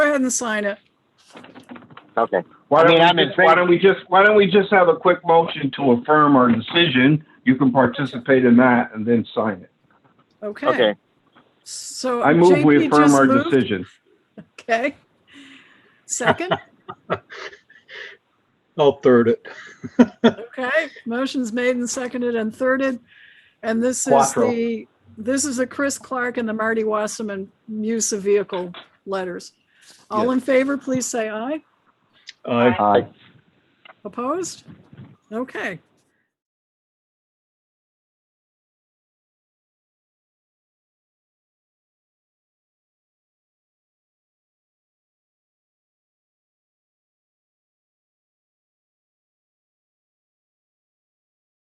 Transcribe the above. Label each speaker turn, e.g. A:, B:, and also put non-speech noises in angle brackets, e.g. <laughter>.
A: ahead and sign it.
B: Okay.
C: Why
B: I mean,
C: don't
B: I'm
C: we
B: in
C: just, why
B: favor.
C: don't we just, why don't we just have a quick motion to affirm our decision? You can participate in that and then sign it.
A: Okay,
B: Okay.
A: so.
C: I move we
A: JP
C: affirm
A: just
C: our
A: moved.
C: decision.
A: Okay.
C: <laughs>
A: Second,
D: I'll third it.
A: okay, motion's made and seconded and thirded. And this is
C: Quattro.
A: the, this is the Chris Clark and the Marty Wasserman use of vehicle letters. All
D: Yes.
A: in favor, please say aye.
D: I,
B: Aye.
A: Opposed? Okay,